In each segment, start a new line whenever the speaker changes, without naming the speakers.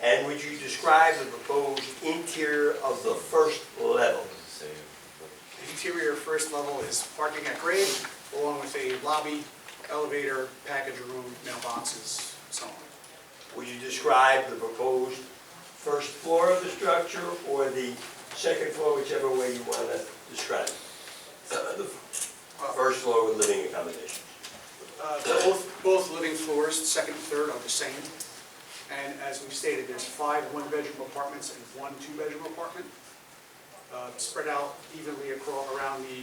Then would you describe the proposed interior of the first level?
The interior first level is parking at grade, along with a lobby, elevator, package room, mailboxes, so on.
Would you describe the proposed first floor of the structure or the second floor, whichever way you want to describe it? The First floor with living accommodations.
Uh, Both, both living floors, second and third are the same. And as we've stated, there's five one-bedroom apartments and one two-bedroom apartment, uh, spread out evenly across, around the,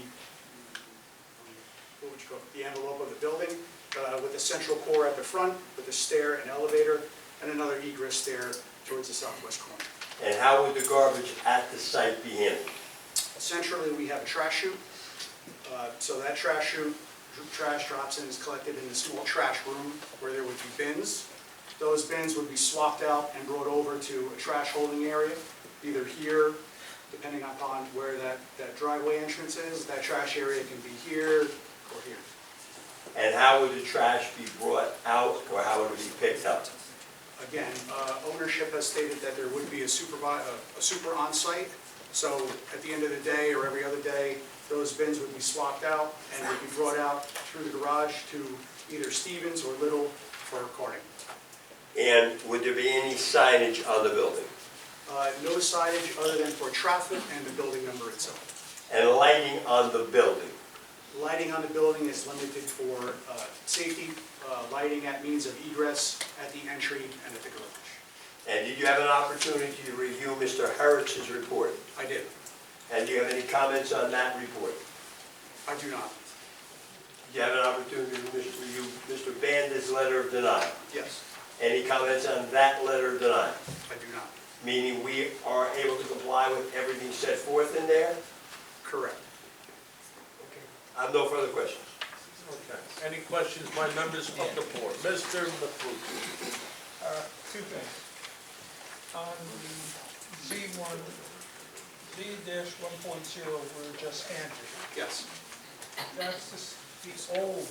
what would you call it, the envelope of the building, uh, with a central core at the front, with a stair and elevator, and another egress stair towards the southwest corner.
And how would the garbage at the site be handled?
Centrally, we have a trash chute. Uh, So that trash chute, dr- trash drops in, is collected in the small trash room where there would be bins. Those bins would be swapped out and brought over to a trash holding area, either here, depending upon where that that driveway entrance is. That trash area can be here or here.
And how would the trash be brought out or how would it be picked up?
Again, uh, ownership has stated that there would be a supervi, a- a super on-site, so at the end of the day or every other day, those bins would be swapped out and would be brought out through the garage to either Stevens or Little for carting.
And would there be any signage on the building?
Uh, No signage other than for traffic and the building number itself.
And lighting on the building?
Lighting on the building is limited for uh, safety, uh, lighting at means of egress at the entry and at the garage.
And did you have an opportunity to review Mr. Harris's report?
I did.
And do you have any comments on that report?
I do not.
Did you have an opportunity to review Mr. Bandit's letter of denial?
Yes,
Any comments on that letter of denial?
I do not.
Meaning we are able to comply with everything set forth in there?
Correct.
I have no further questions.
Okay. Any questions by members of the board? Mr. Mafucci?
Uh, Two things. Um, On the B1, B-1.0, we're just handed.
Yes.
That's the s- the old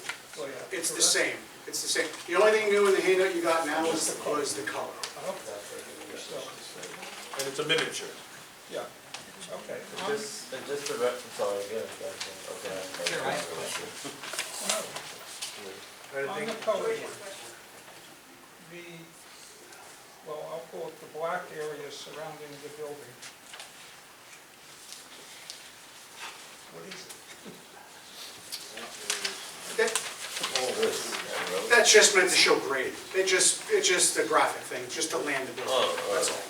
layout.
It's the
correct?
same, it's the same. The only thing new in the handout you got now is, the- was the color.
Okay. So,
And it's a miniature.
Yeah, okay.
And just, and just to reconcile again, okay.
Here, I have a question. On the
Anything?
color one, the, well, I'll call it the black area surrounding the building. What is it?
That- That's just meant to show grade. It just, it's just a graphic thing, just to land the building, that's all.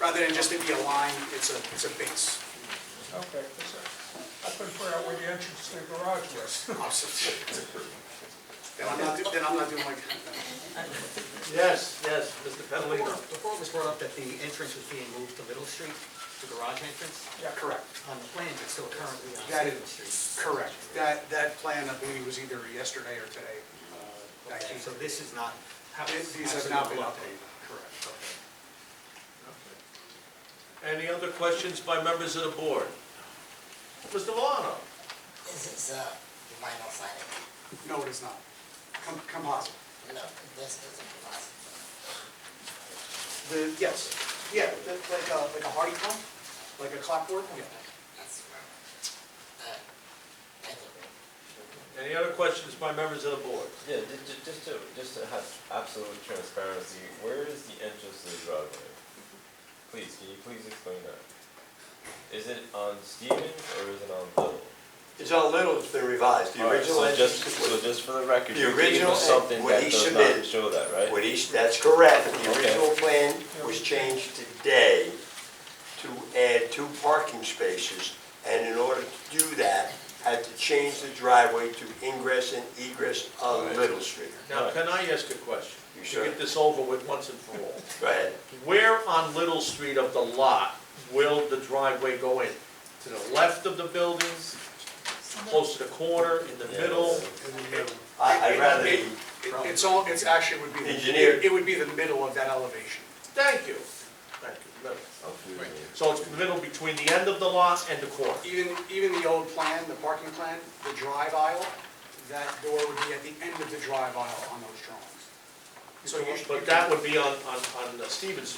Rather than just it be a line, it's a, it's a base.
Okay, 'cause I I couldn't figure out where the entrance to the garage was.
Obviously. Then I'm not, do- then I'm not doing like,
Yes, yes, Mr. Petalino.
Before it was brought up that the entrance was being moved to Middle Street, the garage entrance,
Yeah,
correct,
on the plans, it's still currently on
That-
Stevens Street.
correct. That, that plan, I believe, was either yesterday or today. uh, that
Okay,
came-
So this is not. how it's
These have
actually
not been
brought up.
updated, correct.
Any other questions by members of the board? Mr. Valano?
This is, uh, you might not find it.
No, it is not. Com- Composite.
No, this isn't possible.
The, yes, yeah, the- like a, like a hardy pump, like a clockwork, yeah.
That's wrong. Uh, anyway.
Any other questions by members of the board?
Yeah, ju- ju- just to, just to have absolute transparency, where is the entrance to the driveway? Please, can you please explain that? Is it on Stevens or is it on Little?
It's on Little, it's been revised. The
Alright,
original
so just,
entrance
so
was,
just for the record,
The
you're giving
original
us something
what
that
he
does
submitted-
not show that, right?
what he- that's correct. The
Okay.
original plan was changed today to add two parking spaces. And in order to do that, had to change the driveway to ingress and egress on Little Street.
Now, can I ask a question?
You
To
sure?
Get this over with once and for all.
Go ahead.
Where on Little Street of the lot will the driveway go in? To the left of the buildings, close to the corner, in the
Yeah.
middle?
I- I'd rather,
It- it- It's all, it's actually would be. the-
Engineer.
It would be the middle of that elevation.
Thank you. Thank you. Middle. So it's the middle between the end of the lot and the corner.
Even, even the old plan, the parking plan, the drive aisle, that door would be at the end of the drive aisle on those drawings. So you-
But that would be on, uh, on, on Stevens